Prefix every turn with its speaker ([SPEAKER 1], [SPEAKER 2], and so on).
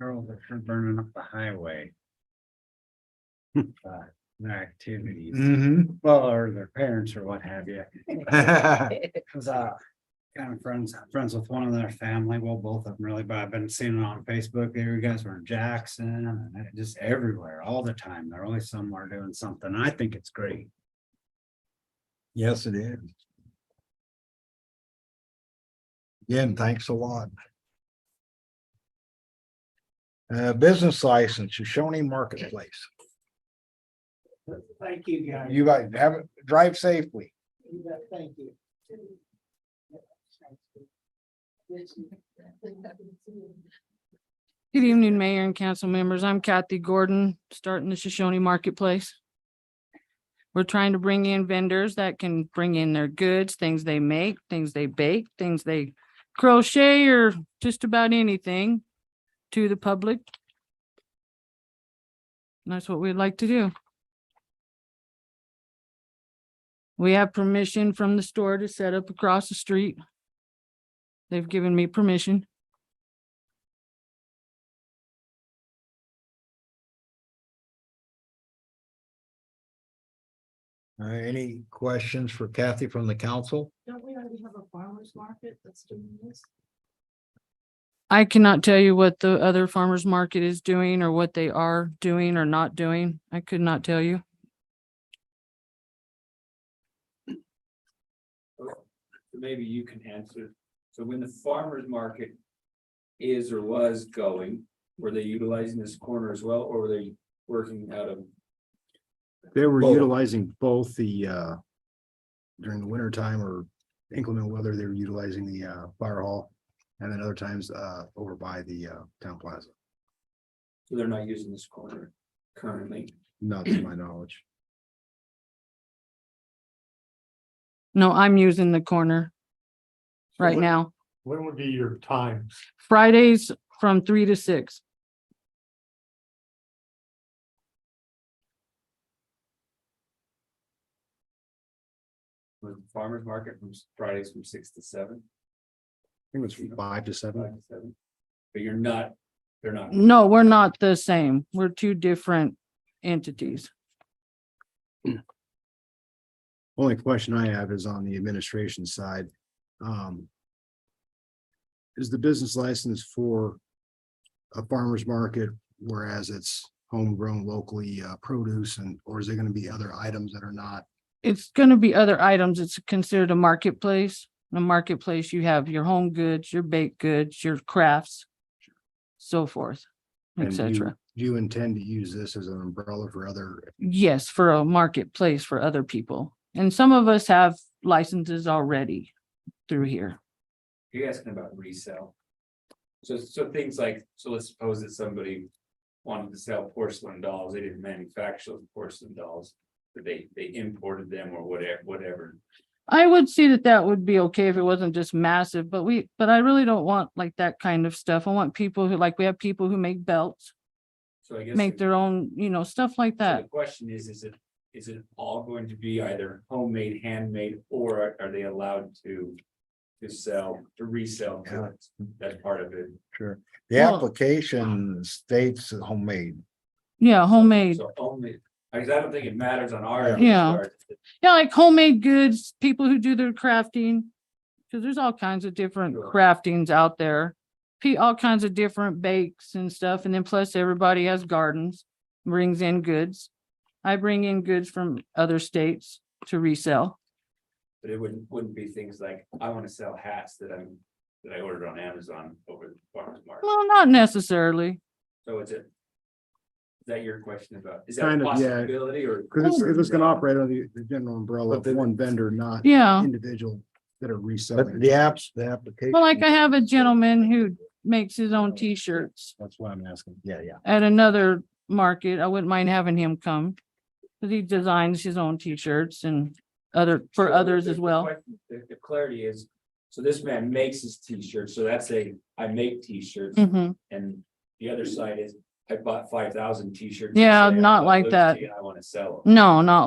[SPEAKER 1] Carol, if you're burning up the highway.
[SPEAKER 2] Hmm.
[SPEAKER 1] Uh, their activities, well, or their parents or what have you.
[SPEAKER 3] Mm-hmm.
[SPEAKER 1] Cause uh, kind of friends, friends with one of their family, well, both of them really, but I've been seeing it on Facebook, you guys were in Jackson and it- just everywhere, all the time. They're always somewhere doing something. I think it's great.
[SPEAKER 3] Yes, it is. Again, thanks a lot. Uh, business license, Shoshone Marketplace.
[SPEAKER 4] Thank you, guys.
[SPEAKER 3] You guys have, it. drive safely.
[SPEAKER 4] You bet, thank you.
[SPEAKER 5] Good evening, Mayor and council members. I'm Kathy Gordon, starting the Shoshone Marketplace. We're trying to bring in vendors that can bring in their goods, things they make, things they bake, things they crochet or just about anything to the public. And That's what we'd like to do. We have permission from the store to set up across the street. They've given me permission.
[SPEAKER 3] Uh, any questions for Kathy from the council?
[SPEAKER 4] Don't we already have a farmer's market that's doing this?
[SPEAKER 5] I cannot tell you what the other farmer's market is doing or what they are doing or not doing. I could not tell you.
[SPEAKER 6] maybe you can answer. So when the farmer's market is or was going, were they utilizing this corner as well, or were they working out of?
[SPEAKER 2] They were
[SPEAKER 3] Both.
[SPEAKER 2] utilizing both the uh. During the winter time or inclement weather, they were utilizing the uh fire hall. And then other times uh over by the uh town plaza,
[SPEAKER 6] So they're not using this corner currently.
[SPEAKER 2] not to my knowledge.
[SPEAKER 5] No, I'm using the corner right
[SPEAKER 7] what-
[SPEAKER 5] now.
[SPEAKER 7] When would be your times?
[SPEAKER 5] Fridays from three to six.
[SPEAKER 6] Was the farmer's market from Fridays from six to seven?
[SPEAKER 2] I think it was from five to seven.
[SPEAKER 6] five to seven? But you're not, they're not.
[SPEAKER 5] No, we're not the same. We're two different entities.
[SPEAKER 2] Only question I have is on the administration side. Um. Is the business license for a farmer's market, whereas it's homegrown locally uh produce and, or is there gonna be other items that are not?
[SPEAKER 5] It's gonna be other items. It's considered a marketplace. In a marketplace, you have your home goods, your baked goods, your crafts, so forth,
[SPEAKER 2] and
[SPEAKER 5] et
[SPEAKER 2] you-
[SPEAKER 5] cetera.
[SPEAKER 2] Do you intend to use this as an umbrella for other
[SPEAKER 5] Yes, for a marketplace for other people. And some of us have licenses already through here.
[SPEAKER 6] You're asking about resale. So, so things like, so let's suppose that somebody wanted to sell porcelain dolls, they didn't manufacture those porcelain dolls. But they, they imported them or whatever, whatever.
[SPEAKER 5] I would see that that would be okay if it wasn't just massive, but we, but I really don't want like that kind of stuff. I want people who, like, we have people who make belts,
[SPEAKER 6] So I guess.
[SPEAKER 5] make
[SPEAKER 6] the-
[SPEAKER 5] their own, you know, stuff like
[SPEAKER 6] so
[SPEAKER 5] that.
[SPEAKER 6] The question is, is it, is it all going to be either homemade, handmade, or are they allowed to? To sell, to resell goods? That's part of it.
[SPEAKER 3] Sure. The
[SPEAKER 5] Well-
[SPEAKER 3] application states homemade.
[SPEAKER 5] Yeah, homemade.
[SPEAKER 6] So only, I guess I don't think it matters on our. end,
[SPEAKER 5] Yeah.
[SPEAKER 6] or-
[SPEAKER 5] Yeah, like homemade goods, people who do their crafting. Cause there's all kinds of different
[SPEAKER 6] Sure.
[SPEAKER 5] craftings out there. Pe- all kinds of different bakes and stuff. And then plus everybody has gardens, brings in goods. I bring in goods from other states to resell.
[SPEAKER 6] But it wouldn't, wouldn't be things like, I wanna sell hats that I'm, that I ordered on Amazon over the farmer's market,
[SPEAKER 5] Well, not necessarily.
[SPEAKER 6] so is it? Is that your question about, is that
[SPEAKER 2] Kind
[SPEAKER 6] a
[SPEAKER 2] of, yeah.
[SPEAKER 6] possibility or?
[SPEAKER 2] Because it's, it's gonna operate under the, the general umbrella of
[SPEAKER 3] But the-
[SPEAKER 2] one vendor, not
[SPEAKER 5] Yeah.
[SPEAKER 2] individual that are
[SPEAKER 3] But
[SPEAKER 2] reselling.
[SPEAKER 3] the apps, the application.
[SPEAKER 5] Well, like I have a gentleman who makes his own t-shirts
[SPEAKER 2] That's why I'm asking.
[SPEAKER 3] Yeah, yeah.
[SPEAKER 5] at another market. I wouldn't mind having him come. Cause he designs his own t-shirts and other, for
[SPEAKER 6] So
[SPEAKER 5] others
[SPEAKER 6] the-
[SPEAKER 5] as
[SPEAKER 6] the
[SPEAKER 5] well.
[SPEAKER 6] question- The, the clarity is, so this man makes his t-shirts, so that's a, I make t-shirts,
[SPEAKER 5] hmm
[SPEAKER 6] and the other side is, I bought five thousand t-shirts.
[SPEAKER 5] Yeah,
[SPEAKER 6] yesterday, I
[SPEAKER 5] not
[SPEAKER 6] bought
[SPEAKER 5] like
[SPEAKER 6] those
[SPEAKER 5] that.
[SPEAKER 6] to you, I wanna sell them.
[SPEAKER 5] No, not